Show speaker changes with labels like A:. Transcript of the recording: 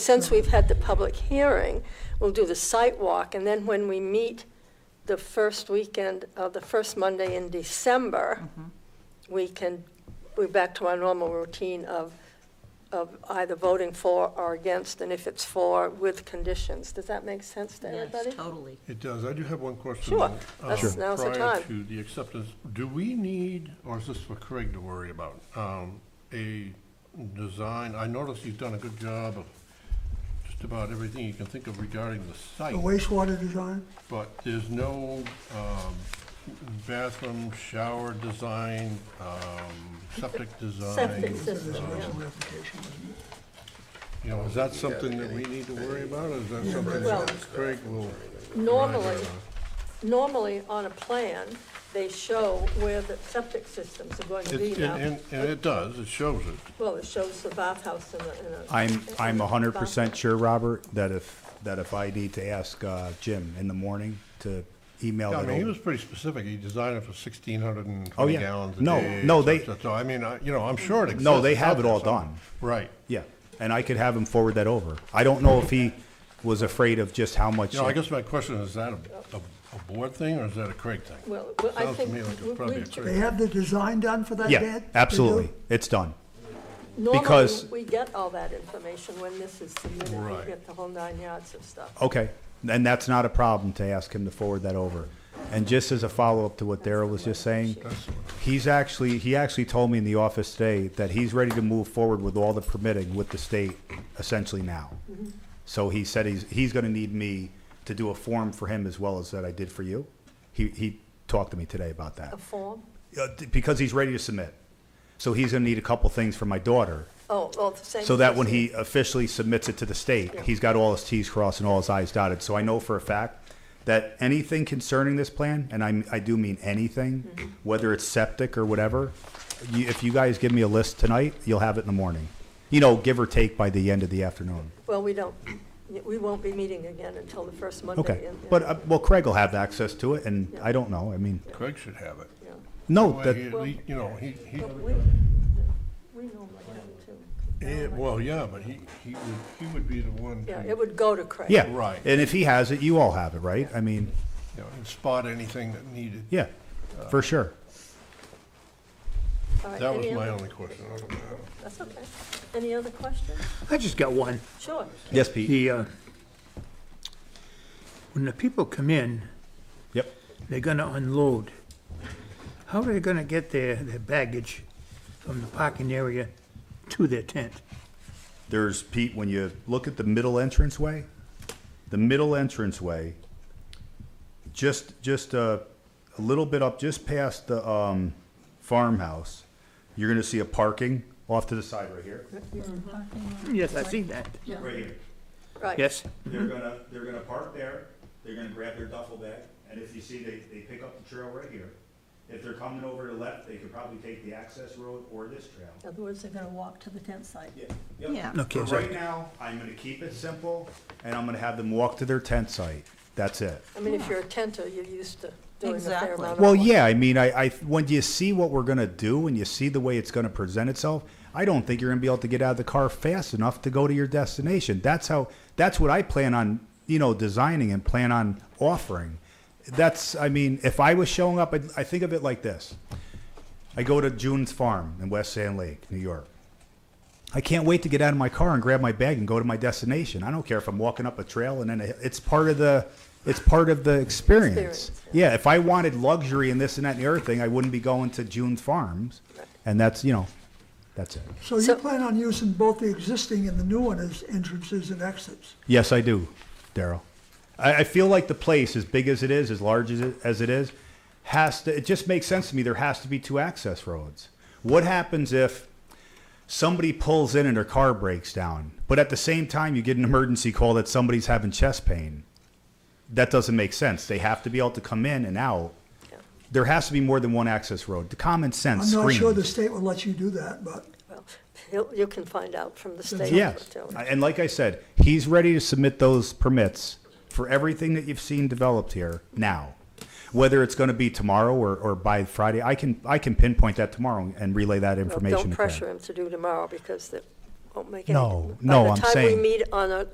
A: Since we've had the public hearing, we'll do the site walk, and then when we meet the first weekend, uh, the first Monday in December,
B: Mm-hmm.
A: we can, we're back to our normal routine of, of either voting for or against, and if it's for, with conditions. Does that make sense to everybody?
B: Yes, totally.
C: It does. I do have one question.
A: Sure.
C: though,
A: That's-
C: um,
A: now's the time.
C: Prior to the acceptance, do we need, or is this for Craig to worry about, um, a design? I noticed you've done a good job of just about everything you can think of regarding the
D: The
C: site,
D: wastewater design,
C: but there's no um, bathroom, shower design, um, septic
A: Septic
C: design.
D: this is
A: system,
D: a
A: yeah.
D: original application, wasn't it?
C: You know, is that something that we need to worry about, or is that something
A: Well-
C: that Craig will?
A: Normally, normally on a plan, they show where the septic systems are going to be
C: It-
A: now.
C: And, and- and it does, it shows it.
A: Well, it shows the bathhouse and the, and the.
E: I'm, I'm
A: and the
E: hundred percent
A: bathroom.
E: sure, Robert, that if, that if I need to ask, uh, Jim in the morning to email
C: Yeah, I
E: that
C: mean, he was
E: over.
C: pretty specific. He designed it for sixteen hundred and
E: Oh,
C: twenty
E: yeah.
C: gallons a day.
E: No, no,
C: et
E: they-
C: cetera. So, I mean, I, you know, I'm sure it exists.
E: No, they
C: It's
E: have
C: out
E: it
C: there
E: all
C: somewhere.
E: done.
C: Right.
E: Yeah, and I could have him forward that over. I don't know if he was afraid of just how much.
C: You know, I guess my question is, is that a, a- a board thing or is that a Craig thing?
A: Well, well, I
C: Sounds to
A: think.
C: me like it's
A: we-
C: probably
A: we-
C: a
D: They have the design done for that bed?
E: Yeah, absolutely. It's done.
A: Normally,
E: because-
A: we get all that information when this is submitted, we
C: Right.
A: get the whole nine yards of stuff.
E: Okay, and that's not a problem to ask him to forward that over. And just as a follow-up to what Daryl was just saying, he's actually, he actually told me in the office today that he's ready to move forward with all the permitting with the state essentially now. So he said he's, he's gonna need me to do a form for him as well as that I did for you. He, he talked to me today about that,
A: A form?
E: Uh, d- because he's ready to submit. So he's gonna need a couple things for my daughter,
A: Oh, oh, the same.
E: so that when
A: person.
E: he officially submits it to the state,
A: Yeah.
E: he's got all his Ts crossed and all his Is dotted. So I know for a fact that anything concerning this plan, and I, I do mean
A: Mm-hmm.
E: anything, whether it's septic or whatever, you, if you guys give me a list tonight, you'll have it in the morning. You know, give or take by the end of the afternoon.
A: Well, we don't, we won't be meeting again until the first Monday.
E: Okay,
A: in- in-
E: but, uh, well, Craig will have access to it, and I don't know, I mean,
C: Craig should have it.
A: yeah.
E: no,
C: Well, he
E: Oh, that,
C: at least- You know, he, he,
A: But we, we normally have it too.
C: eh, well, yeah, but he, he would, he would be the one to,
A: Yeah,
C: you
A: it would go to Craig.
E: yeah.
C: Right.
E: And if he has it, you all have it, right? I mean,
C: know, spot anything that needed.
E: yeah, for sure.
A: All right,
C: That was
A: any
C: my
A: other-
C: only question. I don't know.
A: That's okay. Any other questions?
F: I just got one.
A: Sure.
E: Yes, Pete?
F: The, uh, when the people come in,
E: Yep.
F: they're gonna unload. How are they gonna get their, their baggage from the parking area to their tent?
E: There's Pete, when you look at the middle entranceway, the middle entranceway, just, just a, a little bit up, just past the, um, farmhouse, you're gonna see a parking off to the side right here.
F: Yes, I see that.
E: Right here.
A: Right.
F: Yes,
E: They're gonna, they're gonna park there, they're gonna grab their duffel bag, and if you see, they, they pick up the trail right here. If they're coming over to the left, they could probably take the access road or this trail.
A: In other words, they're gonna walk to the tent site.
E: Yeah. Yep.
B: Yeah.
F: Okay,
E: For
F: so-
E: right now, I'm gonna keep it simple, and I'm gonna have them walk to their tent site. That's it.
A: I mean, if you're a tenter, you're used to doing a fair
B: Exactly.
A: amount of.
E: Well,
A: walking.
E: yeah, I mean, I, I, when you see what we're gonna do and you see the way it's gonna present itself, I don't think you're gonna be able to get out of the car fast enough to go to your destination. That's how, that's what I plan on, you know, designing and plan on offering. That's, I mean, if I was showing up, I, I think of it like this. I go to June's Farm in West Sand Lake, New York. I can't wait to get out of my car and grab my bag and go to my destination. I don't care if I'm walking up a trail and then a- it's part of the it's part of the experience.
A: Experience,
E: yeah. if I wanted luxury and this and that and the other thing, I wouldn't be going to June Farms. And that's, you know, that's it.
D: So you
A: So-
D: plan on using both the existing and the new one as entrances and exits?
E: Yes, I do, Daryl. I, I feel like the place, as big as it is, as large as it, as it is, has to. It just makes sense to me. There has to be two access roads. What happens if somebody pulls in and their car breaks down, but at the same time you get an emergency call that somebody's having chest pain? That doesn't make sense. They have to be able to come in and out.
A: Yeah.
E: There has to be more than one access road. The common sense.
D: I'm not sure
E: screams.
D: the state will let you do that, but
A: Well, you you can find out from the state.
E: Yes,
A: too.
E: and like I said, he's ready to submit those permits for everything that you've seen developed here now. Whether it's gonna be tomorrow or, or by Friday, I can, I can pinpoint that tomorrow and relay that
A: Well,
E: information
A: Don't
E: to Craig.
A: pressure him to do tomorrow because the- won't make any.
E: No, no, I'm
A: By the time
E: saying-
A: we meet on a-